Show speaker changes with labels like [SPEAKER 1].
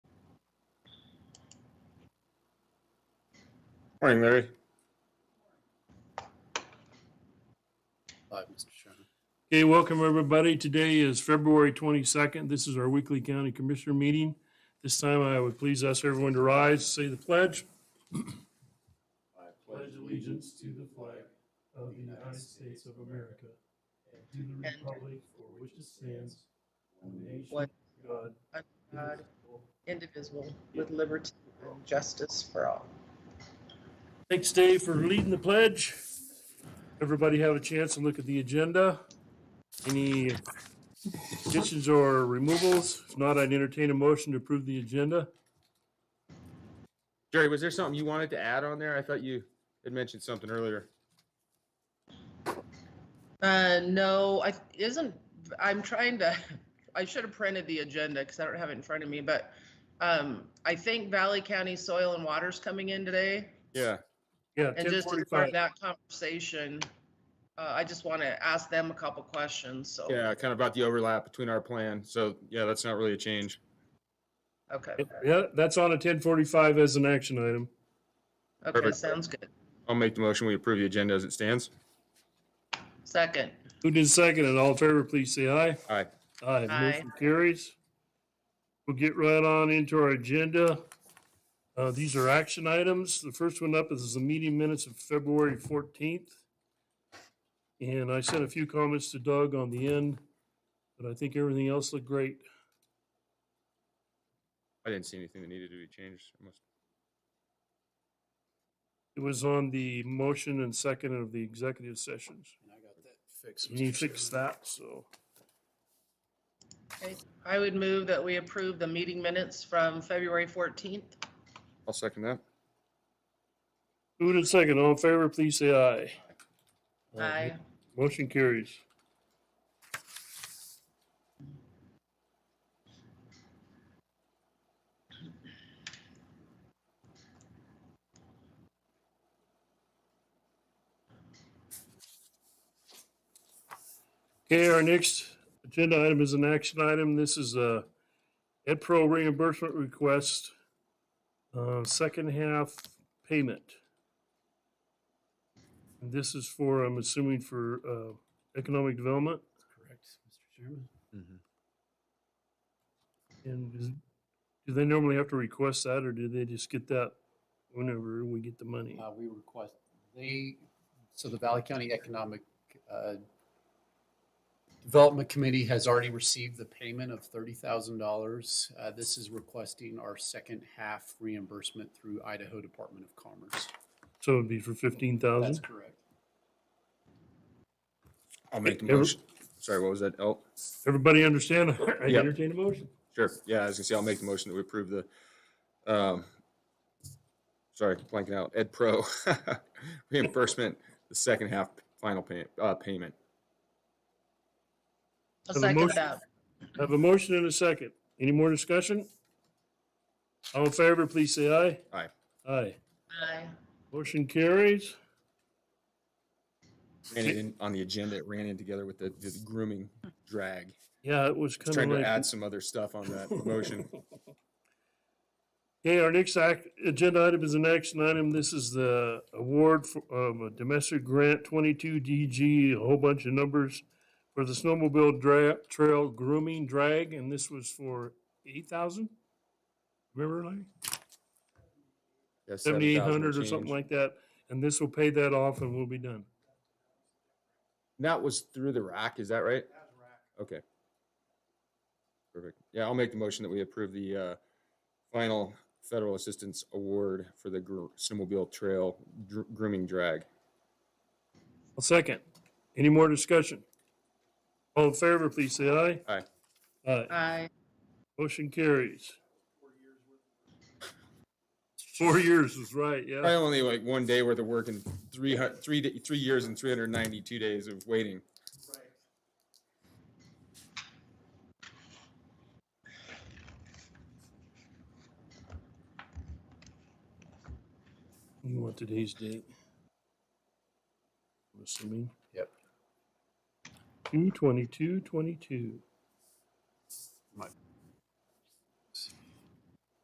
[SPEAKER 1] Morning, Larry.
[SPEAKER 2] Five, Mr. Chairman.
[SPEAKER 3] Okay, welcome everybody. Today is February 22nd. This is our weekly county commissioner meeting. This time I would please ask everyone to rise, say the pledge. I pledge allegiance to the flag of the United States of America and to the republic for which it stands, one nation,
[SPEAKER 4] One.
[SPEAKER 3] God.
[SPEAKER 4] God, indivisible, with liberty and justice for all.
[SPEAKER 3] Thanks, Dave, for leading the pledge. Everybody have a chance to look at the agenda. Any additions or removals? If not, I'd entertain a motion to approve the agenda.
[SPEAKER 1] Jerry, was there something you wanted to add on there? I thought you had mentioned something earlier.
[SPEAKER 4] Uh, no, I isn't. I'm trying to. I should have printed the agenda because I don't have it in front of me. But um, I think Valley County Soil and Water's coming in today,
[SPEAKER 1] Yeah.
[SPEAKER 3] Yeah,
[SPEAKER 4] and just as
[SPEAKER 3] 10:45.
[SPEAKER 4] part of that conversation, uh, I just want to ask them a couple questions. So
[SPEAKER 1] Yeah, kind of about the overlap between our plan. So yeah, that's not really a change.
[SPEAKER 4] okay,
[SPEAKER 3] Yeah, that's on a 10:45 as an action item.
[SPEAKER 4] okay,
[SPEAKER 1] Perfect.
[SPEAKER 4] sounds good.
[SPEAKER 1] I'll make the motion. We approve the agenda as it stands.
[SPEAKER 4] Second,
[SPEAKER 3] Who did second and all in favor, please say aye.
[SPEAKER 1] Aye.
[SPEAKER 3] Aye,
[SPEAKER 4] Aye.
[SPEAKER 3] motion carries. We'll get right on into our agenda. Uh, these are action items. The first one up is the meeting minutes of February fourteenth. And I sent a few comments to Doug on the end, but I think everything else looked great.
[SPEAKER 1] I didn't see anything that needed to be changed. I must-
[SPEAKER 3] It was on the motion and second of the executive sessions.
[SPEAKER 2] And I got that fixed.
[SPEAKER 3] We need
[SPEAKER 2] Mr.
[SPEAKER 3] to fix
[SPEAKER 2] Chairman.
[SPEAKER 3] that, so.
[SPEAKER 4] I would move that we approve the meeting minutes from February 14th.
[SPEAKER 1] I'll second that.
[SPEAKER 3] Who did second? All in favor, please say aye.
[SPEAKER 4] Aye.
[SPEAKER 3] Motion carries. Okay, our next agenda item is an action item. This is a Ed Pro reimbursement request, uh, second half payment. And this is for, I'm assuming for uh, economic development
[SPEAKER 2] Correct, Mr. Chairman.
[SPEAKER 3] Mm-hmm. and is- do they normally have to request that or do they just get that whenever we get the money?
[SPEAKER 2] Uh, we request, they, so the Valley County Economic, uh, Development Committee has already received the payment of thirty thousand dollars. Uh, this is requesting our second half reimbursement through Idaho Department of Commerce.
[SPEAKER 3] So it'd be for fifteen thousand?
[SPEAKER 2] That's correct.
[SPEAKER 1] I'll make the
[SPEAKER 3] Ever-
[SPEAKER 1] motion. Sorry, what was that? Oh,
[SPEAKER 3] Everybody understand? I
[SPEAKER 1] Yep.
[SPEAKER 3] entertain a motion.
[SPEAKER 1] sure. Yeah, I was gonna say, I'll make the motion that we approve the, um, sorry, blanking out, Ed Pro reimbursement, the second half final pay, uh, payment.
[SPEAKER 4] I'll
[SPEAKER 3] So the
[SPEAKER 4] second
[SPEAKER 3] motion-
[SPEAKER 4] that.
[SPEAKER 3] Have a motion and a second. Any more discussion? All in favor, please say aye.
[SPEAKER 1] Aye.
[SPEAKER 3] Aye.
[SPEAKER 4] Aye.
[SPEAKER 3] Motion carries.
[SPEAKER 1] Ran it in, on the agenda, it ran in together with the, the grooming drag.
[SPEAKER 3] Yeah, it was
[SPEAKER 1] Just
[SPEAKER 3] kind
[SPEAKER 1] trying
[SPEAKER 3] of
[SPEAKER 1] to
[SPEAKER 3] like.
[SPEAKER 1] add some other stuff on that motion.
[SPEAKER 3] Okay, our next act, agenda item is an action item. This is the award for, of a domestic grant twenty-two DG, a whole bunch of numbers for the snowmobile dra- trail grooming drag, and this was for eight thousand? Remember, Larry?
[SPEAKER 1] Yeah,
[SPEAKER 3] Seventy-eight
[SPEAKER 1] 7,000
[SPEAKER 3] hundred or
[SPEAKER 1] change.
[SPEAKER 3] something like that, and this will pay that off and we'll be done.
[SPEAKER 1] That was through the rack, is that right? Okay. Perfect. Yeah, I'll make the motion that we approve the uh, final federal assistance award for the gr- snowmobile trail dr- grooming drag.
[SPEAKER 3] I'll second. Any more discussion? All in favor, please say aye.
[SPEAKER 1] Aye.
[SPEAKER 3] Aye.
[SPEAKER 4] Aye.
[SPEAKER 3] Motion carries. Four years is right,
[SPEAKER 1] I
[SPEAKER 3] yeah.
[SPEAKER 1] only like one day worth of work and three hu- three da- three years and three hundred ninety-two days of waiting.
[SPEAKER 3] You want today's date? I'm assuming.
[SPEAKER 2] Yep.
[SPEAKER 3] Two twenty-two, twenty-two.